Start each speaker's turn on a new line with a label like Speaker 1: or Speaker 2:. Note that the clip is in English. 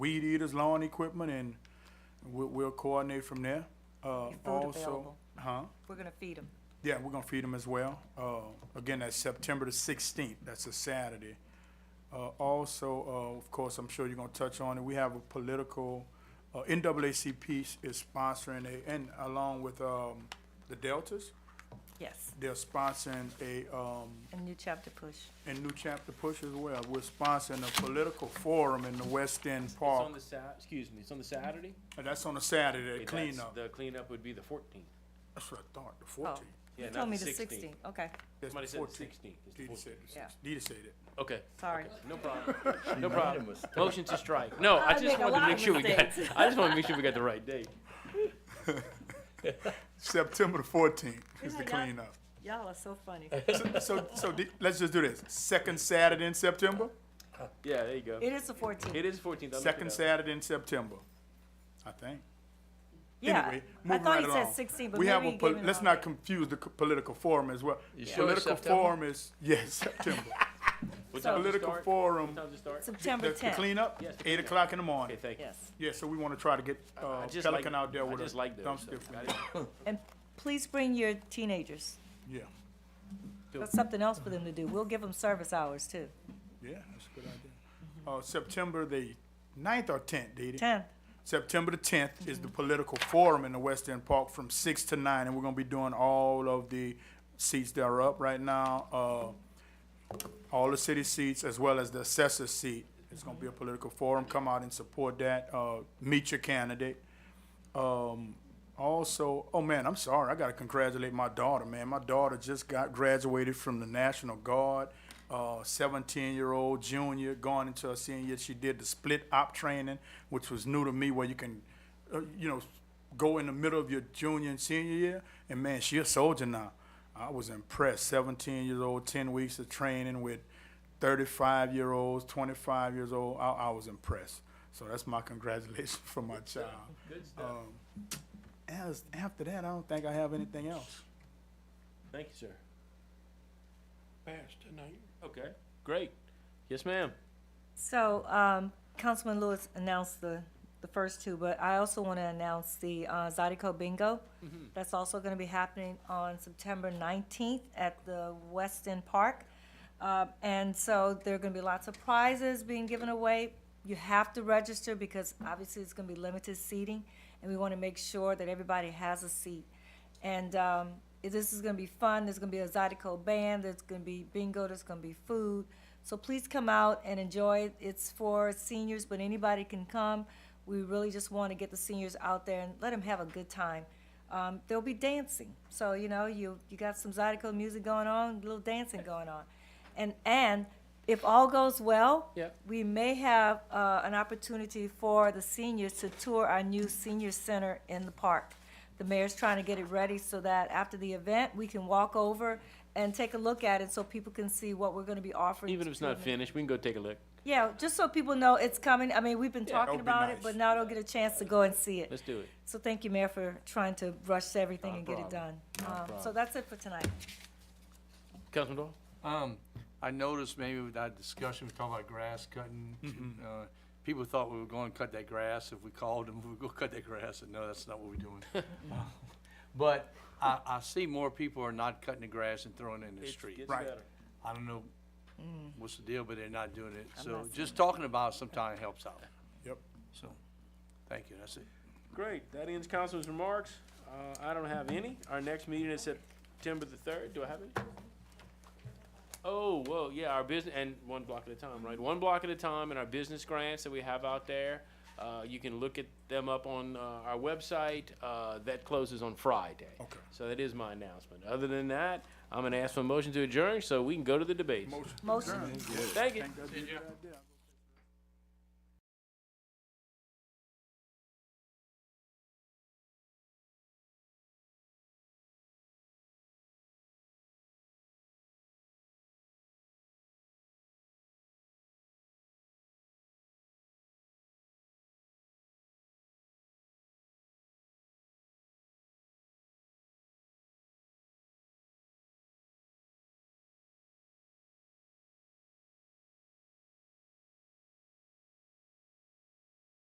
Speaker 1: weed eaters, lawn equipment, and we'll, we'll coordinate from there. Uh,
Speaker 2: And food
Speaker 1: also,
Speaker 2: available.
Speaker 1: huh?
Speaker 2: We're gonna feed them.
Speaker 1: Yeah, we're gonna feed them as well. Uh, again, that's September the sixteenth, that's a Saturday. Uh, also, uh, of course, I'm sure you're gonna touch on it, we have a political, uh, NAACP s- is sponsoring a, and along with, um, the Deltas,
Speaker 2: Yes,
Speaker 1: they're sponsoring a, um,
Speaker 2: a new chapter push.
Speaker 1: and New Chapter Push as well. We're sponsoring a political forum in the West End
Speaker 3: It's
Speaker 1: Park.
Speaker 3: on the Sat, excuse me, it's on the Saturday?
Speaker 1: And that's on a Saturday,
Speaker 3: Okay, that's-
Speaker 1: cleanup.
Speaker 3: The cleanup would be the fourteenth.
Speaker 1: That's what I thought, the
Speaker 2: Oh,
Speaker 1: fourteenth.
Speaker 2: you
Speaker 3: Yeah,
Speaker 2: told
Speaker 3: not
Speaker 2: me
Speaker 3: the
Speaker 2: the
Speaker 3: 16.
Speaker 2: sixteenth, okay,
Speaker 3: Somebody said the sixteenth.
Speaker 1: Dita said it.
Speaker 2: Yeah.
Speaker 1: Dita said it.
Speaker 3: Okay.
Speaker 2: sorry.
Speaker 3: okay, No problem. No problem.
Speaker 4: mistake.
Speaker 3: Motion to strike. No, I
Speaker 2: I
Speaker 3: just
Speaker 2: make a
Speaker 3: wanted to
Speaker 2: lot
Speaker 3: make
Speaker 2: of
Speaker 3: sure we got,
Speaker 2: mistakes.
Speaker 3: I just wanted to make sure we got the right date.
Speaker 1: September the fourteenth is the
Speaker 2: Yeah, yeah.
Speaker 1: cleanup.
Speaker 2: Y'all are so funny.
Speaker 1: So, so, so di- let's just do this. Second Saturday in September?
Speaker 3: Yeah, there you go.
Speaker 2: It is the fourteenth,
Speaker 3: It is fourteenth.
Speaker 1: Second Saturday in September, I think.
Speaker 2: yeah.
Speaker 1: Anyway,
Speaker 2: I
Speaker 1: moving
Speaker 2: thought
Speaker 1: right
Speaker 2: he
Speaker 1: along.
Speaker 2: said sixteen, but
Speaker 1: We have
Speaker 2: maybe
Speaker 1: a,
Speaker 2: he
Speaker 1: pol-
Speaker 2: gave me the
Speaker 1: let's
Speaker 2: wrong
Speaker 1: not
Speaker 2: date.
Speaker 1: confuse the c- political forum as well.
Speaker 4: You sure it's
Speaker 1: Political
Speaker 4: September?
Speaker 1: forum is, yes, September.
Speaker 3: What time does it
Speaker 1: Political
Speaker 3: start? What
Speaker 1: forum,
Speaker 3: time does it start?
Speaker 2: September
Speaker 1: the the
Speaker 2: tenth,
Speaker 1: cleanup,
Speaker 3: Yes, the
Speaker 1: eight
Speaker 3: cleanup.
Speaker 1: o'clock in the
Speaker 3: Okay,
Speaker 1: morning.
Speaker 3: thank you.
Speaker 2: yes.
Speaker 1: Yeah, so we want to try to get uh,
Speaker 3: I just like-
Speaker 1: Pelican out there
Speaker 3: I
Speaker 1: with a
Speaker 3: just like those,
Speaker 1: dumpster.
Speaker 3: so I didn't-
Speaker 2: And please bring your teenagers.
Speaker 1: Yeah,
Speaker 2: That's something else for them to do. We'll give them service hours too.
Speaker 1: yeah, that's a good idea. Uh, September the ninth or tenth, Didi?
Speaker 2: Tenth,
Speaker 1: September the tenth is the political forum in the West End Park from six to nine, and we're gonna be doing all of the seats that are up right now. Uh, all the city seats as well as the assessor seat. It's gonna be a political forum. Come out and support that. Uh, meet your candidate. Um, also, oh man, I'm sorry. I gotta congratulate my daughter, man. My daughter just got graduated from the National Guard. Uh, 17 year old junior going into her senior year. She did the split op training, which was new to me, where you can, uh, you know, go in the middle of your junior and senior year. And man, she a soldier now. I was impressed. 17 years old, 10 weeks of training with 35 year olds, 25 years old. I, I was impressed. So that's my congratulations for my child.
Speaker 3: Good stuff.
Speaker 1: Um, as, after that, I don't think I have anything else.
Speaker 3: Thank you, sir.
Speaker 5: passed tonight.
Speaker 3: Okay, great. Yes, ma'am.
Speaker 2: So, um, Councilman Lewis announced the, the first two, but I also want to announce the, uh, Zydeco Bingo. That's also going to be happening on September nineteenth at the West End Park. Uh, and so there are going to be lots of prizes being given away. You have to register because obviously it's going to be limited seating, and we want to make sure that everybody has a seat. And, um, it- this is gonna be fun, there's gonna be a Zydeco band, there's gonna be bingo, there's gonna be food. So please come out and enjoy it. It's for seniors, but anybody can come. We really just wanna get the seniors out there and let them have a good time. Um, there'll be dancing, so, you know, you, you got some Zydeco music going on, a little dancing going on. And, and if all goes well,
Speaker 3: Yep.
Speaker 2: we may have, uh, an opportunity for the seniors to tour our new senior center in the park. The mayor's trying to get it ready so that after the event, we can walk over and take a look at it so people can see what we're gonna be offering.
Speaker 3: Even if it's
Speaker 2: to
Speaker 3: not
Speaker 2: them.
Speaker 3: finished, we can go take a look.
Speaker 2: Yeah, just so people know it's coming. I mean, we've been
Speaker 1: that
Speaker 2: talking
Speaker 1: would be
Speaker 2: about it,
Speaker 1: nice.
Speaker 2: but now they'll get a chance to go and see it.
Speaker 3: Let's do it.
Speaker 2: So thank you, Mayor, for trying to rush everything
Speaker 3: Not a
Speaker 2: and get it done.
Speaker 3: problem. Not a
Speaker 2: Um, So
Speaker 3: problem.
Speaker 2: that's it for tonight.
Speaker 3: Councilman Doyle?
Speaker 4: Um, I noticed maybe with that discussion, we talked about grass cutting. uh, People thought we were going to cut that grass. If we called them, we would go cut that grass, and no, that's not what we're doing. But I, I see more people are not cutting the grass and throwing it in the
Speaker 3: It's-
Speaker 4: street.
Speaker 3: gets
Speaker 1: Right.
Speaker 3: better.
Speaker 4: I don't know what's the deal, but they're not doing it.
Speaker 2: I'm
Speaker 4: So
Speaker 2: not
Speaker 4: just talking about it sometimes helps out.
Speaker 1: Yep.
Speaker 4: So, thank you, that's it.
Speaker 3: Great, that ends Councilman's remarks. Uh, I don't have any. Our next meeting is September the third. Do I have any? Oh, well, yeah, our business, and one block at a time, right? One block at a time, and our business grants that we have out there. Uh, you can look at them up on, uh, our website. Uh, that closes on Friday.
Speaker 1: Okay.
Speaker 3: So that is my announcement. Other than that, I'm gonna ask for a motion to adjourn, so we can go to the debates.
Speaker 1: Motion.
Speaker 2: Motion.
Speaker 1: adjourned.
Speaker 3: Thank you.
Speaker 1: Think that'd be a good idea.